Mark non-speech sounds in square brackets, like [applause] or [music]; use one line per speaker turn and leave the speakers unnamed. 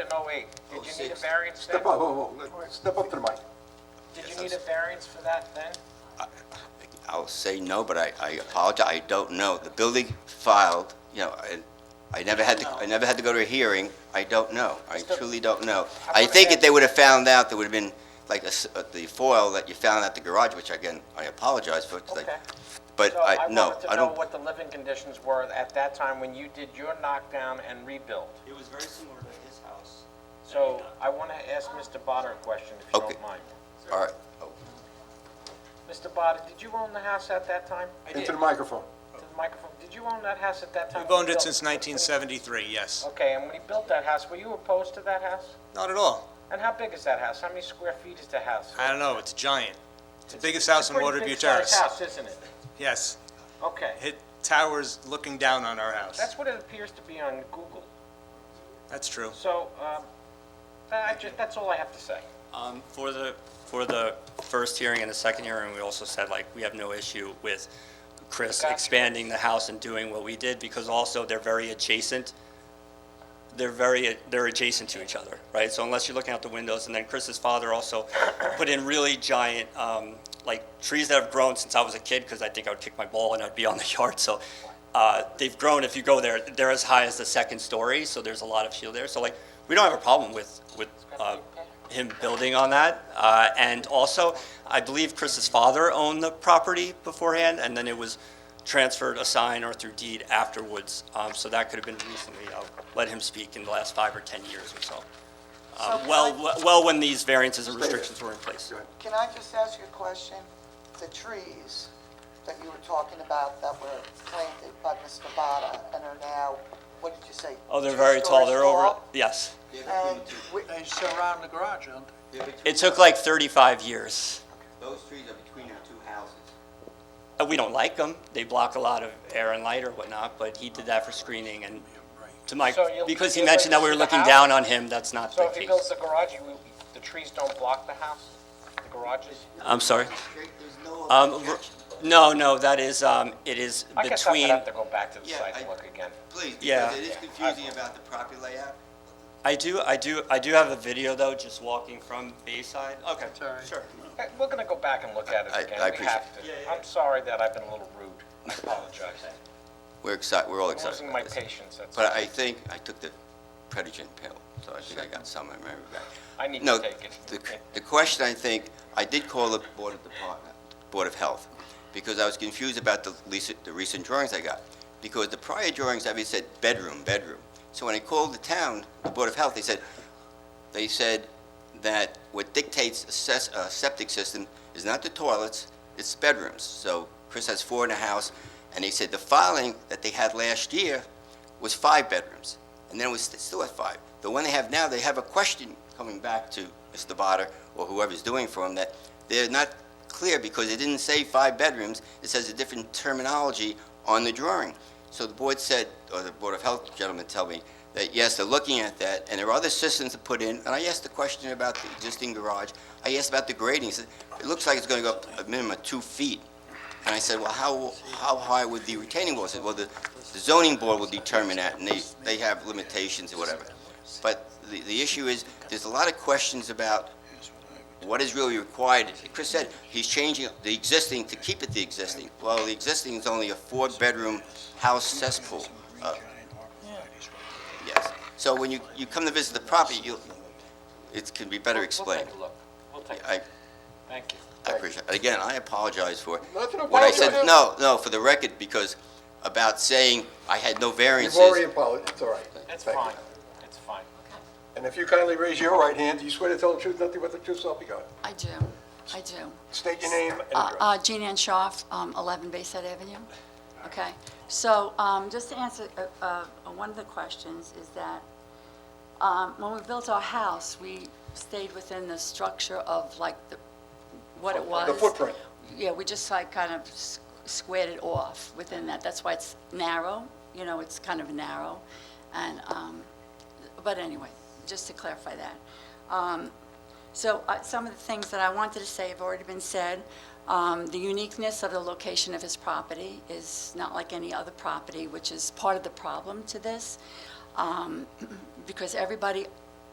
in 08, did you need a
06.
variance then?
Step up, whoa, whoa, whoa, step up to the mic.
Did
Yes,
you need a
I'm-
variance for that then?
I'll say no, but I, I apologize, I don't know. The building filed, you know, I, I never had to, I never had to go to a hearing, I don't know. I
Mr.
truly don't know.
How
I
about
think
that?
if they would have found out, there would have been like a s- uh, the foil that you found at the garage, which again, I apologize for, 'cause I-
Okay.
but
So
I,
I
no,
wanted to
I
know
don't.
what the living conditions were at that time when you did your knockdown and rebuild.
It was very similar to his house.
So I want to ask Mr. Botter a question, if you
Okay.
don't mind.
All right, Oh,
Mr. Botter, did you own the house at that time?
Into the microphone.
To the microphone, did you own that house at that time?
We've
when
owned
you
it
built
since 1973, yes.
Okay, and when he built that house, were you opposed to that house?
Not at all.
And how big is that house? How many square feet is the house?
I don't know, it's giant. It's the biggest house in Waterview
Pretty big-sized
Terrace.
house, isn't it?
Yes,
Okay.
it towers looking down on our house.
That's what it appears to be on Google.
That's true.
So, um, I ju- that's all I have to say.
Um, For the, for the first hearing and the second hearing, we also said, like, we have no issue with Chris
Gotcha.
expanding the house and doing what we did, because also they're very adjacent, they're very, they're adjacent to each other, right? So unless you're looking out the windows, and then Chris's father also put in really giant, um, like, trees that have grown since I was a kid, because I think I would kick my ball and I'd be on the [laughs] yard, so, uh, they've grown, if you go there, they're as high as the second story, so there's a lot of shield there, so like, we don't have a problem with, with, uh, him building on that, uh, and also, I believe Chris's father owned the property beforehand, and then it was transferred, assigned, or through deed afterwards, um, so that could have been recently, I'll let him speak in the last five or 10 years or so. Uh, Well, well, when these variances and restrictions were in place.
Go ahead.
Can I just ask you a question? The trees that you were talking about that were planted by Mr. Bada and are now, what did you say?
Oh, they're
two
very tall,
stories
they're over,
tall?
yes.
And we-
They surround the garage, don't they?
It took like 35 years.
Those trees are between the two houses.
Uh, We don't like them, they block a lot of air and light or whatnot, but he did that for screening, and to my,
So you'll-
because he
you'll
mentioned that
go
we were
to the
looking
house?
down on him, that's not the
So if he
case.
builds the garage, you, the trees don't block the house, the garages?
I'm sorry?
There's no
Um, r- No, no, that is, um, it is
I guess I'm gonna
between,
have to go back to the
Yeah,
site and
I-
look again.
Please,
Yeah.
because it is confusing about the property layout.
I do, I do, I do have a video though, just walking from Bayside. Okay,
all right.
sure.
Okay, Eh, We're gonna go back and look at it
I-
again,
I
we
appreciate-
have to. I'm sorry that I've been a little rude, I apologize.
We're excited, we're all
I'm
excited
losing
about
my
this.
patience, that's,
But I think I took the Predigen pill, so I think I got some, I remember back.
I need
No,
to take it.
the, the question, I think, I did call the Board of Department, Board of Health, because I was confused about the recent, the recent drawings I got. Because the prior drawings, I mean, said bedroom, bedroom. So when I called the town, the Board of Health, they said, they said that what dictates a ses- a septic system is not the toilets, it's bedrooms. So Chris has four in the house, and they said the filing that they had last year was five bedrooms, and then it was st- still at five. The one they have now, they have a question coming back to Mr. Botter or whoever's doing for him that they're not clear because it didn't say five bedrooms, it says a different terminology on the drawing. So the board said, or the Board of Health gentlemen tell me, that yes, they're looking at that, and there are other systems to put in, and I asked the question about the existing garage, I asked about the grading, He said, it looks like it's gonna go up a minimum of two feet. And I said, well, how, how high would the retaining wall? He said, well, the the zoning board will determine that, and they, they have limitations or whatever. But the, the issue is, there's a lot of questions about what is really required. Chris said, he's changing the existing to keep it the existing. Well, the existing is only a four-bedroom house cesspool. Uh, Yes. So when you, you come to visit the property, you, it can be better
We'll
explained.
take a look, we'll take, a
I,
look. thank you.
I appreciate, again, I apologize for
Nothing to
what I said.
apologize.
No, no, for the record, because about saying I had no
You've already
variances.
apologized, it's all right.
It's
Thank you.
fine, it's fine.
And if you kindly raise your right hand, do you swear to tell the truth, nothing but the truth, so help you God?
I do, I do.
State your name and
Uh,
address.
uh, Jean Ann Schaaf, um, 11 Bayside Avenue. Okay, so um, just to answer uh, uh, one of the questions is that um, when we built our house, we stayed within the structure of like the, what it was.
The footprint.
Yeah, we just like kind of s- squared it off within that. That's why it's narrow, you know, it's kind of narrow. And, um, but anyway, just to clarify that. Um, So uh, some of the things that I wanted to say have already been said. Um, The uniqueness of the location of his property is not like any other property, which is part of the problem to this, um, because everybody